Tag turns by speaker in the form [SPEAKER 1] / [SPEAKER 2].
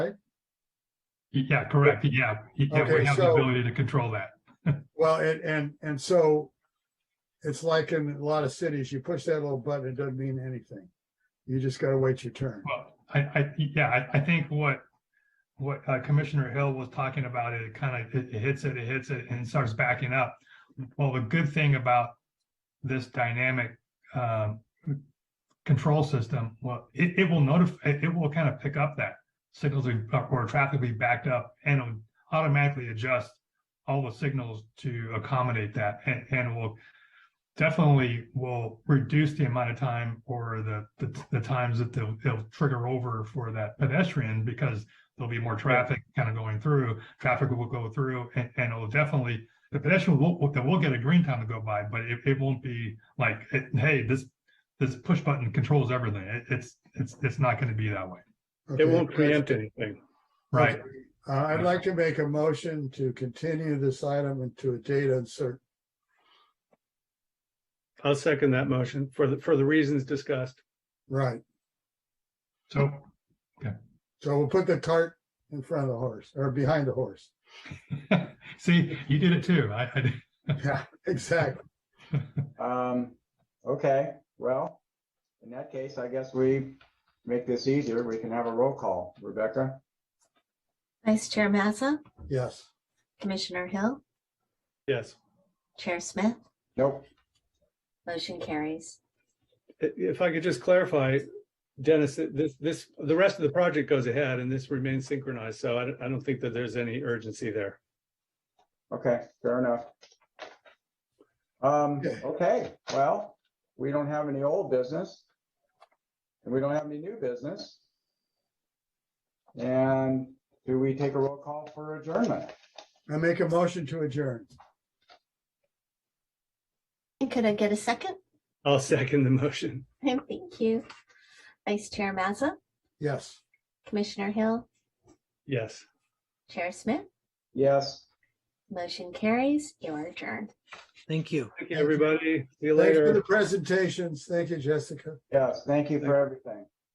[SPEAKER 1] Yeah, correct. Yeah, yeah,
[SPEAKER 2] Okay,
[SPEAKER 1] we have the
[SPEAKER 2] so-
[SPEAKER 1] ability to control that.
[SPEAKER 2] Well, and, and, and so it's like in a lot of cities, you push that little button, it doesn't mean anything. You just gotta wait your turn.
[SPEAKER 1] Well, I, I, yeah, I, I think what, what uh, Commissioner Hill was talking about, it kind of, it it hits it, it hits it and starts backing up. Well, the good thing about this dynamic, um, control system, well, it, it will notify, it it will kind of pick up that signals are- or traffic will be backed up and it'll automatically adjust all the signals to accommodate that and, and will definitely will reduce the amount of time or the, the, the times that they'll, they'll trigger over for that pedestrian because there'll be more traffic kind of going through, traffic will go through and, and it'll definitely, the pedestrian will, will, they will get a green time to go by, but it, it won't be like, it- hey, this, this push button controls everything. It, it's, it's, it's not going to be that way.
[SPEAKER 2] Okay,
[SPEAKER 3] It won't
[SPEAKER 2] that's-
[SPEAKER 3] preempt anything.
[SPEAKER 1] Right.
[SPEAKER 2] Uh, I'd like to make a motion to continue this item into a date uncertain.
[SPEAKER 3] I'll second that motion for the, for the reasons discussed.
[SPEAKER 2] Right,
[SPEAKER 1] So
[SPEAKER 2] so we'll put the cart in front of the horse or behind the horse.
[SPEAKER 1] see, you did it too. I, I,
[SPEAKER 2] Yeah, exactly.
[SPEAKER 4] Um, okay, well, in that case, I guess we make this easier. We can have a roll call. Rebecca?
[SPEAKER 5] Vice Chair Mazza,
[SPEAKER 2] Yes.
[SPEAKER 5] Commissioner Hill,
[SPEAKER 3] Yes.
[SPEAKER 5] Chair Smith,
[SPEAKER 4] Nope.
[SPEAKER 5] motion carries.
[SPEAKER 3] I- If I could just clarify, Dennis, that this, this, the rest of the project goes ahead and this remains synchronized. So I don't, I don't think that there's any urgency there.
[SPEAKER 4] Okay, fair enough. Um,
[SPEAKER 2] Okay.
[SPEAKER 4] okay, well, we don't have any old business. And we don't have any new business. And do we take a roll call for adjournment?
[SPEAKER 2] I make a motion to adjourn.
[SPEAKER 5] And could I get a second?
[SPEAKER 3] I'll second the motion.
[SPEAKER 5] Thank you. Vice Chair Mazza,
[SPEAKER 2] Yes.
[SPEAKER 5] Commissioner Hill,
[SPEAKER 3] Yes.
[SPEAKER 5] Chair Smith,
[SPEAKER 4] Yes.
[SPEAKER 5] motion carries. You are adjourned.
[SPEAKER 6] Thank you.
[SPEAKER 3] Thank you, everybody. See you
[SPEAKER 2] Thanks for the
[SPEAKER 3] later.
[SPEAKER 2] presentations. Thank you, Jessica.
[SPEAKER 4] Yes, thank you for everything.